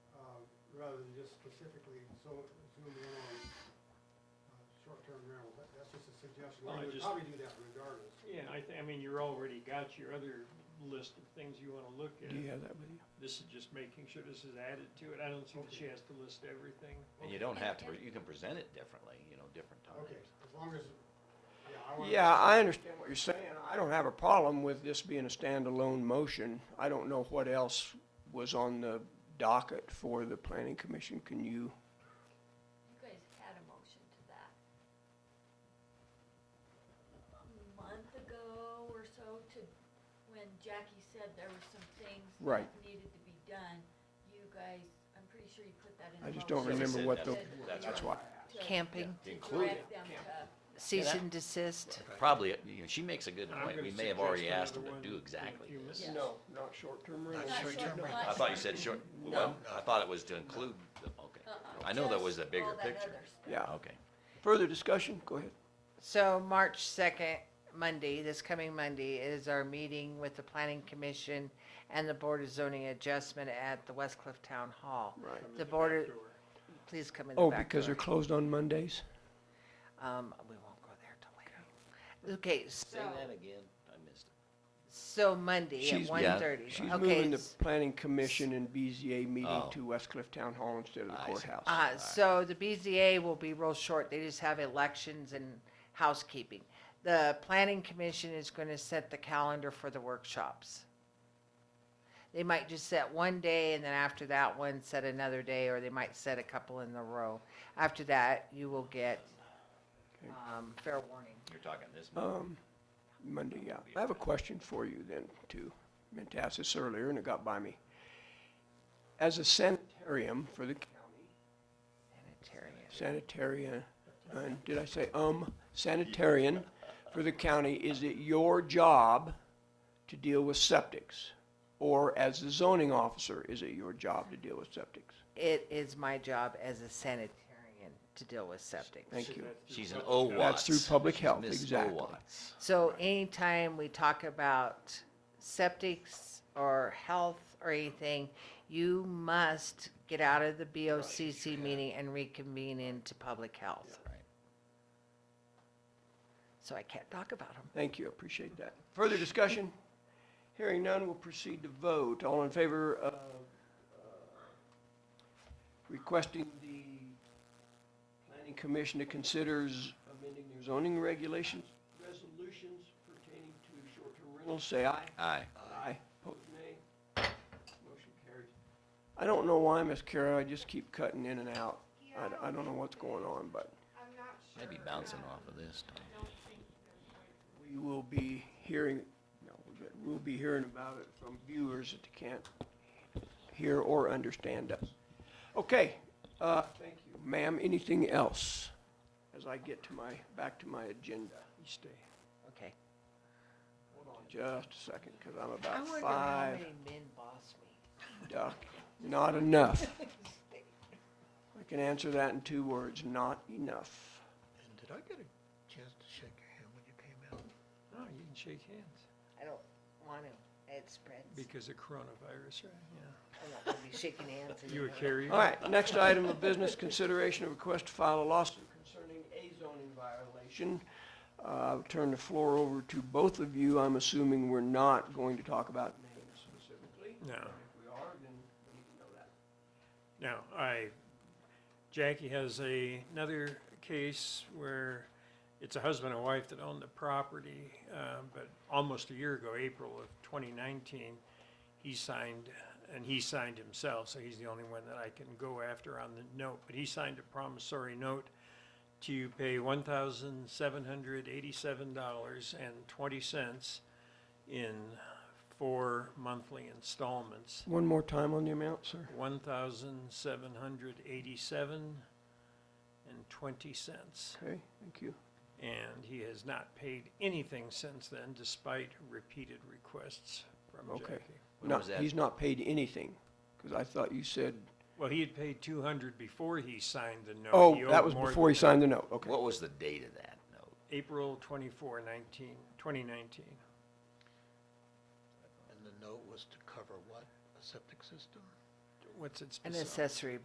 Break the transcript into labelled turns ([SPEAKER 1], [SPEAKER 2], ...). [SPEAKER 1] uh, rather than just specifically so, zoom in on uh, short-term rentals. That- That's just a suggestion.
[SPEAKER 2] Well,
[SPEAKER 1] We
[SPEAKER 2] I
[SPEAKER 1] would
[SPEAKER 2] just-
[SPEAKER 1] probably do that regardless.
[SPEAKER 2] Yeah, I thi- I mean, you're already got your other list of things you wanna look
[SPEAKER 3] Do you
[SPEAKER 2] at.
[SPEAKER 3] have that with you?
[SPEAKER 2] This is just making sure this is added to it. I don't see that she has to list everything.
[SPEAKER 4] And you don't have to, you can present it differently, you know, different
[SPEAKER 1] Okay,
[SPEAKER 4] times.
[SPEAKER 1] as long as, yeah, I want.
[SPEAKER 3] Yeah, I understand what you're saying. I don't have a problem with this being a standalone motion. I don't know what else was on the docket for the planning commission. Can you?
[SPEAKER 5] You guys had a motion to that. a Month ago or so to, when Jackie said there were some things
[SPEAKER 3] Right.
[SPEAKER 5] that needed to be done, you guys, I'm pretty sure you put that in the
[SPEAKER 3] I
[SPEAKER 5] motion.
[SPEAKER 3] just don't
[SPEAKER 4] Yes, I
[SPEAKER 3] remember
[SPEAKER 4] said
[SPEAKER 3] what the,
[SPEAKER 4] that's- that's
[SPEAKER 3] that's why.
[SPEAKER 5] To-
[SPEAKER 6] Camping,
[SPEAKER 4] To
[SPEAKER 5] To
[SPEAKER 4] include it.
[SPEAKER 5] direct them to,
[SPEAKER 6] cease and desist.
[SPEAKER 4] Probably, you know, she makes a good
[SPEAKER 2] I'm
[SPEAKER 4] point. We
[SPEAKER 2] gonna
[SPEAKER 4] may have already
[SPEAKER 2] suggest
[SPEAKER 4] asked them
[SPEAKER 2] another
[SPEAKER 4] to
[SPEAKER 2] one
[SPEAKER 4] do
[SPEAKER 2] in a
[SPEAKER 4] exactly
[SPEAKER 2] few
[SPEAKER 4] this.
[SPEAKER 2] minutes.
[SPEAKER 3] No, not short-term rentals.
[SPEAKER 5] Not short-term rentals.
[SPEAKER 4] I thought you said short, well, I thought it was to include, the- okay.
[SPEAKER 5] uh-uh,
[SPEAKER 4] I know that was the
[SPEAKER 5] just all
[SPEAKER 4] bigger
[SPEAKER 5] that
[SPEAKER 4] picture.
[SPEAKER 5] other stuff.
[SPEAKER 3] Yeah.
[SPEAKER 4] Okay.
[SPEAKER 3] Further discussion? Go ahead.
[SPEAKER 6] So March second, Monday, this coming Monday, is our meeting with the planning commission and the board of zoning adjustment at the Westcliff Town Hall.
[SPEAKER 3] Right.
[SPEAKER 6] The board, of- please come in the
[SPEAKER 3] Oh,
[SPEAKER 6] back
[SPEAKER 3] because they're
[SPEAKER 6] door.
[SPEAKER 3] closed on Mondays?
[SPEAKER 6] Um, we won't go there till later. Okay,
[SPEAKER 4] Say that
[SPEAKER 6] so,
[SPEAKER 4] again. I missed it.
[SPEAKER 6] so Monday at
[SPEAKER 3] She's-
[SPEAKER 6] one
[SPEAKER 4] Yeah.
[SPEAKER 6] thirty.
[SPEAKER 3] She's moving the planning commission and BZA
[SPEAKER 4] Oh.
[SPEAKER 3] meeting to West Cliff Town Hall instead of the
[SPEAKER 4] I see.
[SPEAKER 3] courthouse.
[SPEAKER 6] Uh, so the BZA will be real short. They just have elections and housekeeping. The planning commission is gonna set the calendar for the workshops. They might just set one day and then after that one, set another day, or they might set a couple in a row. After that, you will get,
[SPEAKER 3] Okay.
[SPEAKER 6] um, fair warning.
[SPEAKER 4] You're talking this month.
[SPEAKER 3] Um, Monday, yeah. I have a question for you then, too. Meant to ask this earlier and it got by me. As a sanitarium for the county,
[SPEAKER 6] Sanitarian.
[SPEAKER 3] sanitarian, uh, did I say um, sanitarian for the county, is it your job to deal with septics? Or as the zoning officer, is it your job to deal with septics?
[SPEAKER 6] It is my job as a sanitarian to deal with septic.
[SPEAKER 3] Thank you.
[SPEAKER 4] She's an O
[SPEAKER 3] That's
[SPEAKER 4] Watts.
[SPEAKER 3] through public
[SPEAKER 4] She's
[SPEAKER 3] health,
[SPEAKER 4] Miss O
[SPEAKER 3] exactly.
[SPEAKER 4] Watts.
[SPEAKER 6] So anytime we talk about septics or health or anything, you must get out of the BOCC meeting and reconvene into public health.
[SPEAKER 4] Right.
[SPEAKER 6] So I can't talk about them.
[SPEAKER 3] Thank you, appreciate that. Further discussion? Hearing none, we'll proceed to vote. All in favor of uh, requesting the planning commission to consider z- amending their zoning regulations, resolutions pertaining to short-term rentals, say aye.
[SPEAKER 4] Aye.
[SPEAKER 3] Aye. Opposed, nay. Motion carries. I don't know why, Miss Kara, I just keep cutting in and out. I d- I don't know what's going on, but
[SPEAKER 4] Maybe bouncing off of this. Tom.
[SPEAKER 3] we will be hearing, no, but we'll be hearing about it from viewers that can't hear or understand us. Okay, uh, thank you. Ma'am, anything else as I get to my, back to my agenda? You stay.
[SPEAKER 6] Okay.
[SPEAKER 3] Hold on just a second, because I'm
[SPEAKER 6] I
[SPEAKER 3] about
[SPEAKER 6] wonder how
[SPEAKER 3] five,
[SPEAKER 6] many men boss me.
[SPEAKER 3] duck, not enough. I can answer that in two words, not enough.
[SPEAKER 7] And did I get a chance to shake your hand when you came out?
[SPEAKER 2] No, Oh, you can shake hands
[SPEAKER 6] I don't want to. It spreads.
[SPEAKER 2] because of coronavirus, right? Yeah.
[SPEAKER 6] I'm not going to be shaking hands.
[SPEAKER 2] You a
[SPEAKER 6] anymore.
[SPEAKER 2] carrier?
[SPEAKER 3] All right, next item of business, consideration of request to file a lawsuit concerning a zoning violation. Uh, I'll turn the floor over to both of you. I'm assuming we're not going to talk about names specifically.
[SPEAKER 2] No.
[SPEAKER 3] If we are, then we need to know that.
[SPEAKER 2] Now, I, Jackie has a, another case where it's a husband and wife that own the property, uh, but almost a year ago, April of twenty nineteen, he signed, and he signed himself, so he's the only one that I can go after on the note, but he signed a promissory note to pay one thousand seven hundred eighty-seven dollars and twenty cents in four monthly installments.
[SPEAKER 3] One more time on the amount, sir.
[SPEAKER 2] One thousand seven hundred eighty-seven and twenty cents.
[SPEAKER 3] Okay, thank you.
[SPEAKER 2] And he has not paid anything since then despite repeated requests from
[SPEAKER 3] Okay.
[SPEAKER 2] Jackie.
[SPEAKER 4] When
[SPEAKER 3] No,
[SPEAKER 4] was that?
[SPEAKER 3] He's not paid anything, because I thought you said,
[SPEAKER 2] Well, he had paid two hundred before he signed the note. He
[SPEAKER 3] oh,
[SPEAKER 2] owed
[SPEAKER 3] that was
[SPEAKER 2] more
[SPEAKER 3] before
[SPEAKER 2] than
[SPEAKER 3] he signed the note, okay.
[SPEAKER 4] What was the date of that note?
[SPEAKER 2] April twenty-four nineteen, twenty nineteen.
[SPEAKER 7] And the note was to cover what? A septic system?
[SPEAKER 2] What's it
[SPEAKER 6] An
[SPEAKER 2] specific?
[SPEAKER 6] accessory